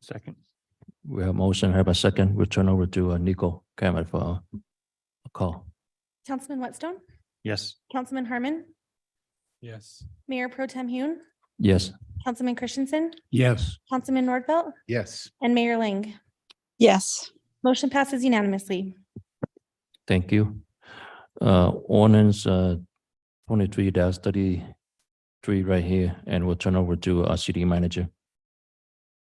Second. We have motion, have a second. We'll turn over to uh, Nico Cameron for a call. Councilman Whitstone, Yes. Councilman Harmon, Yes. Mayor Pro Tem Hune, Yes, Councilman Christensen, Yes. Councilman Nordfelt, Yes. and Mayor Ling. Yes, Motion passes unanimously. thank you. Uh, ordinance, uh, twenty-three thirty-three right here, and we'll turn over to our city manager.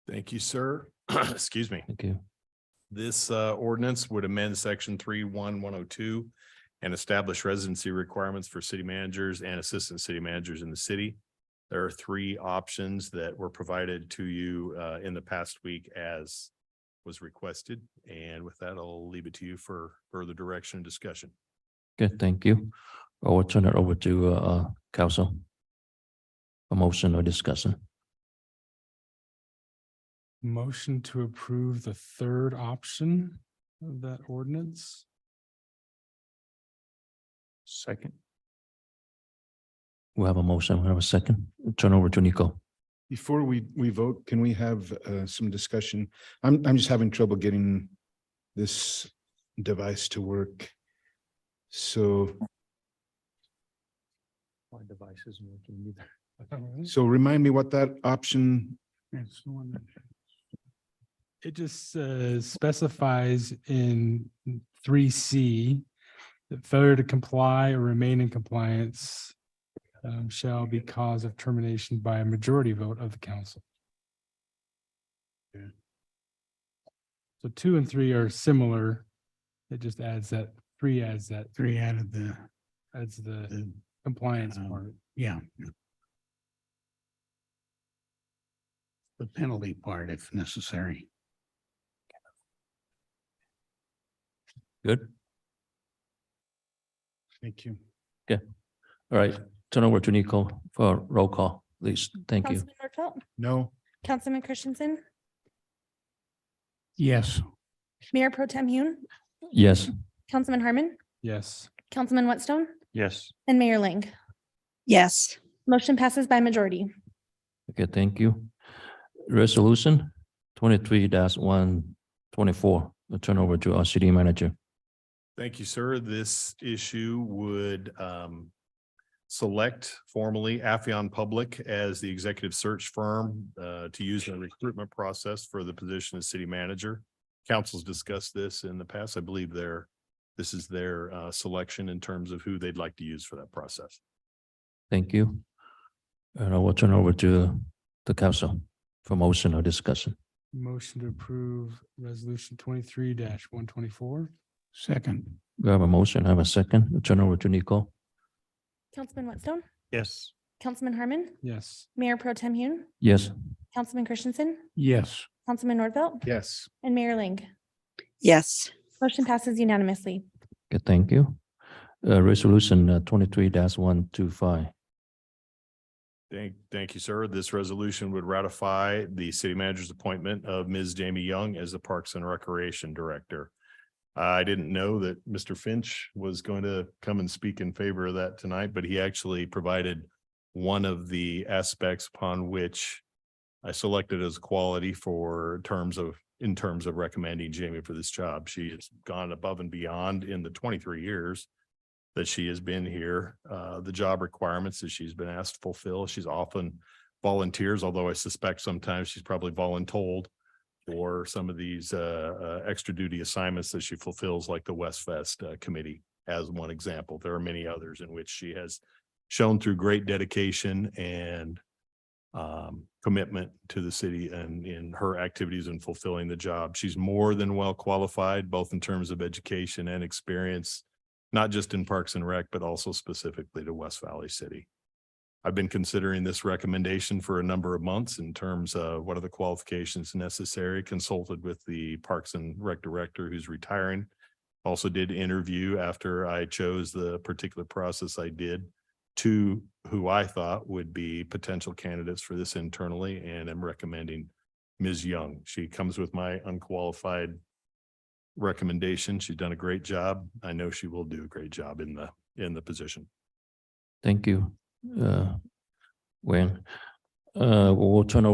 Thank you, sir. Excuse me. Thank you. This uh, ordinance would amend section three one one oh two and establish residency requirements for city managers and assistant city managers in the city. There are three options that were provided to you uh, in the past week as was requested. And with that, I'll leave it to you for further direction and discussion. Good, thank you. I will turn it over to, uh, uh, council. A motion or discussion. Motion to approve the third option of that ordinance? Second. We have a motion, we have a second. Turn over to Nico. Before we, we vote, can we have uh, some discussion? I'm, I'm just having trouble getting this device to work. So, My device isn't working either. Mm-hmm. so remind me what that option, It's the one that- It just uh, specifies in three C that failure to comply or remain in compliance um, shall be cause of termination by a majority vote of the council. So two and three are similar. It just adds that, three adds that, Three added the, adds the the, compliance Um, part. yeah. The penalty part if necessary. Good. Thank you. All right, turn over to Nico for roll call, please. Thank you. Councilman Nordfelt, no? Councilman Christensen, Yes, Mayor Pro Tem Hune, Yes. Councilman Harmon, Yes. Councilman Whitstone, Yes. and Mayor Ling. yes, Motion passes by majority. Okay, thank you. Resolution twenty-three one twenty-four, I'll turn over to our city manager. Thank you, sir. This issue would um, select formally Affion Public as the executive search firm uh, to use in the recruitment process for the position of city manager. Councils discussed this in the past. I believe their, this is their uh, selection in terms of who they'd like to use for that process. Thank you. And I will turn over to the council for motion or discussion. Motion to approve resolution twenty-three one twenty-four? second, We have a motion, have a second. I'll Turn over to Nico. Councilman Whitstone, Yes. Councilman Harmon, Yes. Mayor Pro Tem Hune, Yes, Councilman Christensen, yes, Councilman Nordfelt, Yes. and Mayor Ling. yes, Motion passes unanimously. okay, thank you. Uh, resolution twenty-three one two five. Thank, thank you, sir. This resolution would ratify the city manager's appointment of Ms. Jamie Young as the Parks and Recreation Director. I didn't know that Mr. Finch was going to come and speak in favor of that tonight, but he actually provided one of the aspects upon which I selected as quality for terms of, in terms of recommending Jamie for this job. She has gone above and beyond in the twenty-three years that she has been here, uh, the job requirements that she's been asked to fulfill. She's often volunteers, although I suspect sometimes she's probably voluntold for some of these, uh, uh, extra duty assignments that she fulfills, like the West Fest uh, Committee as one example. There are many others in which she has shown through great dedication and um, commitment to the city and in her activities and fulfilling the job. She's more than well qualified, both in terms of education and experience not just in Parks and Rec, but also specifically to West Valley City. I've been considering this recommendation for a number of months in terms of what are the qualifications necessary, consulted with the Parks and Rec Director who's retiring. Also did interview after I chose the particular process I did to who I thought would be potential candidates for this internally and am recommending Ms. Young. She comes with my unqualified recommendation. She's done a great job. I know she will do a great job in the, in the position. Thank you. Uh, Wayne, uh, we'll turn over